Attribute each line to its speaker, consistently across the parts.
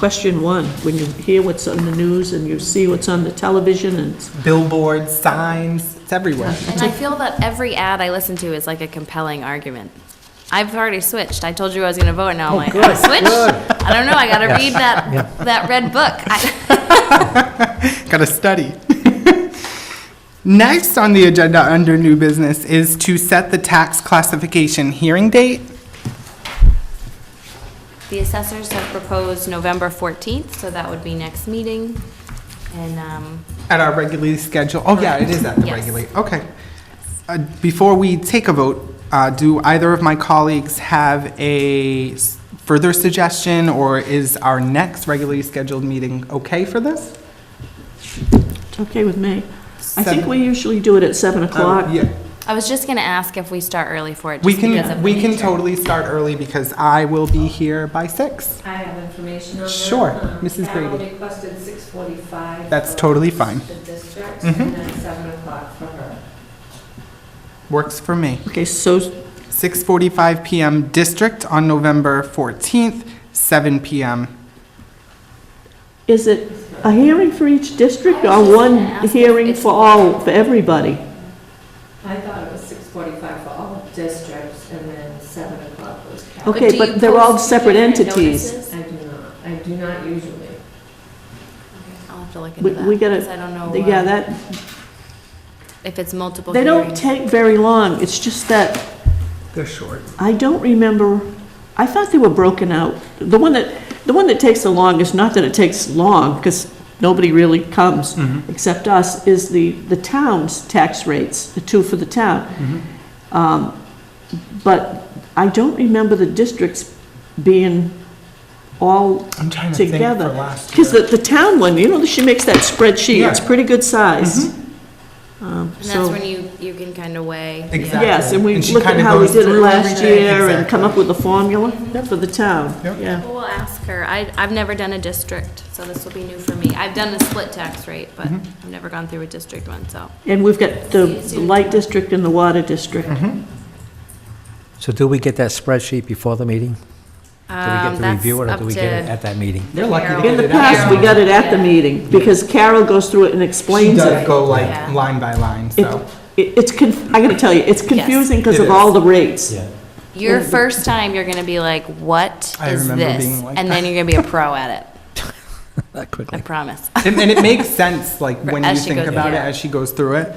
Speaker 1: question one, when you hear what's on the news and you see what's on the television and
Speaker 2: Billboards, signs, it's everywhere.
Speaker 3: And I feel that every ad I listen to is like a compelling argument. I've already switched. I told you I was going to vote,
Speaker 1: Oh,
Speaker 3: now I'm like, I switched? I don't know, I got to read that, that red book. I-
Speaker 2: Gotta study. Next on the agenda under new business is to set the tax classification hearing date.
Speaker 3: The assessors have proposed November 14th, so that would be next meeting. And um,
Speaker 2: At our regularly scheduled, oh yeah, it is at the
Speaker 3: Yes.
Speaker 2: regularly, okay. Uh, Before we take a vote, uh, do either of my colleagues have a s- further suggestion, or is our next regularly scheduled meeting okay for this?
Speaker 1: it's okay with me. I think
Speaker 2: Seven. Um,
Speaker 1: we usually do it at 7 o'clock.
Speaker 2: Uh, Yeah,
Speaker 3: I was just going to ask if we start early for it,
Speaker 2: we
Speaker 3: just because
Speaker 2: can,
Speaker 3: of
Speaker 2: we
Speaker 3: the
Speaker 2: can
Speaker 3: nature.
Speaker 2: totally start early, because I will be here by six.
Speaker 4: I have information on that.
Speaker 2: Sure,
Speaker 4: Um,
Speaker 2: Mrs.
Speaker 4: Carol
Speaker 2: Brady.
Speaker 4: requested 6:45.
Speaker 2: That's
Speaker 4: for
Speaker 2: totally fine.
Speaker 4: The districts,
Speaker 1: Mm-hmm.
Speaker 4: and then 7 o'clock for her.
Speaker 2: Works for me.
Speaker 1: Okay, so
Speaker 2: 6:45 PM District on November 14th, 7 PM.
Speaker 1: is it a hearing for each district or one hearing for all, for everybody?
Speaker 4: I thought it was 6:45 for all districts, and then 7 o'clock was Carol.
Speaker 1: Okay,
Speaker 3: do you
Speaker 1: but they're all
Speaker 3: post
Speaker 1: separate
Speaker 3: different
Speaker 1: entities.
Speaker 3: notices?
Speaker 4: I do not, I do not usually.
Speaker 3: I'll have to look into
Speaker 1: We-
Speaker 3: that.
Speaker 1: we gotta-
Speaker 3: 'cause I don't know
Speaker 1: Yeah,
Speaker 3: uh,
Speaker 1: that,
Speaker 3: if it's multiple
Speaker 1: they don't
Speaker 3: hearings.
Speaker 1: take very long. It's just that
Speaker 2: They're short.
Speaker 1: I don't remember, I thought they were broken out. The one that, the one that takes the longest, not that it takes long, because nobody really comes
Speaker 2: Mm-hmm.
Speaker 1: except us, is the, the town's tax rates, the two for the town.
Speaker 2: Mm-hmm.
Speaker 1: Um, But I don't remember the districts being all
Speaker 2: I'm trying to think
Speaker 1: together.
Speaker 2: for last
Speaker 1: Because the,
Speaker 2: year.
Speaker 1: the town one, you know, she makes that spreadsheet, it's
Speaker 2: Yeah. Mm-hmm.
Speaker 1: pretty good size. Um,
Speaker 3: And that's when you, you can kind of weigh. yeah.
Speaker 2: Exactly.
Speaker 1: Yes, and we
Speaker 2: And she
Speaker 1: look at
Speaker 2: kinda
Speaker 1: how we
Speaker 2: goes
Speaker 1: did it
Speaker 2: through
Speaker 1: last
Speaker 2: everything.
Speaker 1: year and come up
Speaker 2: Exactly.
Speaker 1: with a formula for the town,
Speaker 2: Yep.
Speaker 1: yeah.
Speaker 3: We'll ask her. I, I've never done a district, so this will be new for me. I've done a split tax rate, but
Speaker 5: Mm-hmm.
Speaker 3: I've never gone through a district one, so.
Speaker 1: And we've got the the light district and the water district.
Speaker 2: Mm-hmm.
Speaker 5: So do we get that spreadsheet before the meeting? Do we
Speaker 3: um,
Speaker 5: get to
Speaker 3: that's
Speaker 5: review it, or
Speaker 3: up
Speaker 5: do we get it
Speaker 3: to
Speaker 5: at that meeting?
Speaker 2: They're lucky to
Speaker 3: Carol.
Speaker 2: get
Speaker 1: In the
Speaker 2: it out.
Speaker 1: past, we got it at the
Speaker 3: Yeah.
Speaker 1: meeting, because Carol goes through it and
Speaker 2: She
Speaker 1: explains
Speaker 2: does
Speaker 1: it.
Speaker 2: go like
Speaker 3: Yeah.
Speaker 2: line by line,
Speaker 1: It-
Speaker 2: so.
Speaker 1: it- It's, conf- I gotta tell you, it's confusing because
Speaker 2: It
Speaker 1: of
Speaker 2: is.
Speaker 1: all the rates.
Speaker 3: Your first time, you're gonna be like, what
Speaker 2: I
Speaker 3: is
Speaker 2: remember
Speaker 3: this?
Speaker 2: being like
Speaker 3: And then you're gonna be a pro at it,
Speaker 5: That
Speaker 3: I
Speaker 5: quickly.
Speaker 3: promise.
Speaker 2: And and it makes sense, like,
Speaker 3: For-
Speaker 2: when
Speaker 3: as
Speaker 2: you
Speaker 3: she
Speaker 2: think
Speaker 3: goes-
Speaker 2: about it
Speaker 3: yeah.
Speaker 2: as she goes through it.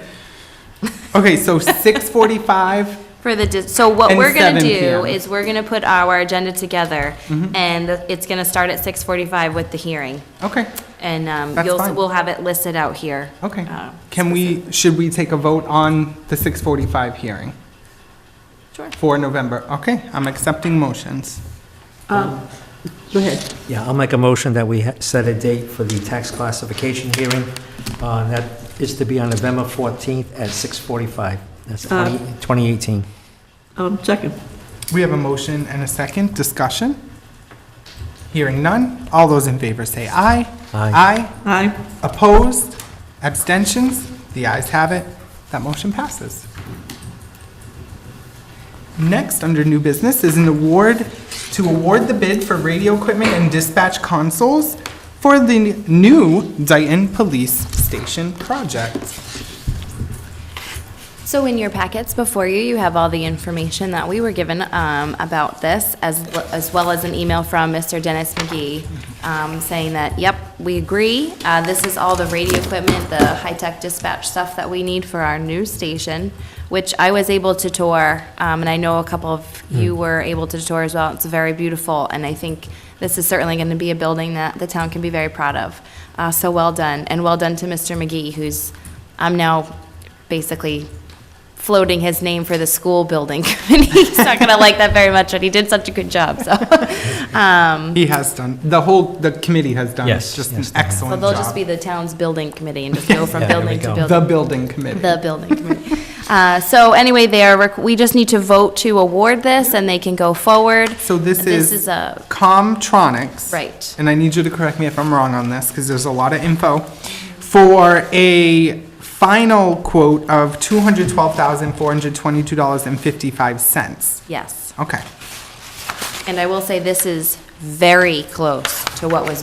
Speaker 2: Okay, so 6:45,
Speaker 3: For the, dis- so what
Speaker 2: And
Speaker 3: we're gonna
Speaker 2: 7
Speaker 3: do
Speaker 2: PM.
Speaker 3: is we're gonna put our agenda together
Speaker 5: Mm-hmm.
Speaker 3: and it's gonna start at six forty-five with the hearing.
Speaker 2: okay,
Speaker 3: And, um,
Speaker 2: That's
Speaker 3: you'll,
Speaker 2: fine.
Speaker 3: we'll have it listed out here.
Speaker 2: okay.
Speaker 3: Uh,
Speaker 2: Can we, should we take a vote on the 6:45 hearing
Speaker 3: Sure.
Speaker 2: for November? Okay, I'm accepting motions.
Speaker 1: Um, Go ahead.
Speaker 5: Yeah, I'll make a motion that we ha- set a date for the tax classification hearing. uh, and That is to be on November 14th at 6:45. That's
Speaker 3: Uh,
Speaker 5: 20 2018.
Speaker 1: Um, Second.
Speaker 2: We have a motion and a second. Discussion? Hearing none. All those in favor say aye.
Speaker 5: Aye.
Speaker 1: Aye.
Speaker 2: Aye. Opposed? Abstentions? The ayes have it. That motion passes. Next, under new business, is an award to award the bid for radio equipment and dispatch consoles for the new Dayton Police Station project.
Speaker 3: So in your packets before you, you have all the information that we were given um, about this, as, as well as an email from Mr. Dennis McGee um, saying that, yep, we agree. Uh, This is all the radio equipment, the high-tech dispatch stuff that we need for our new station, which I was able to tour, um, and I know a couple of you were able to tour as well. It's very beautiful, and I think this is certainly going to be a building that the town can be very proud of. Uh, So well done, and well done to Mr. McGee, who's, I'm now basically floating his name for the school building committee. He's not going to like that very much, but he did such a good job, so. um,
Speaker 2: He has done, the whole, the committee has done
Speaker 5: Yes,
Speaker 2: just an
Speaker 5: yes, they have.
Speaker 3: So
Speaker 2: excellent
Speaker 3: they'll just
Speaker 2: job.
Speaker 3: be the town's building committee and just go from
Speaker 5: Yeah, there we
Speaker 3: building to
Speaker 5: go.
Speaker 3: building.
Speaker 2: The building committee.
Speaker 3: The building committee. Uh, So anyway, they are, rec- we just need to vote to award this, and they can go forward.
Speaker 2: So this is.
Speaker 3: This is a,
Speaker 2: Comtronics.
Speaker 3: Right.
Speaker 2: And I need you to correct me if I'm wrong on this, because there's a lot of info, for a final quote of $212,422.55.
Speaker 3: yes.
Speaker 2: Okay.
Speaker 3: And I will say, this is very close to what was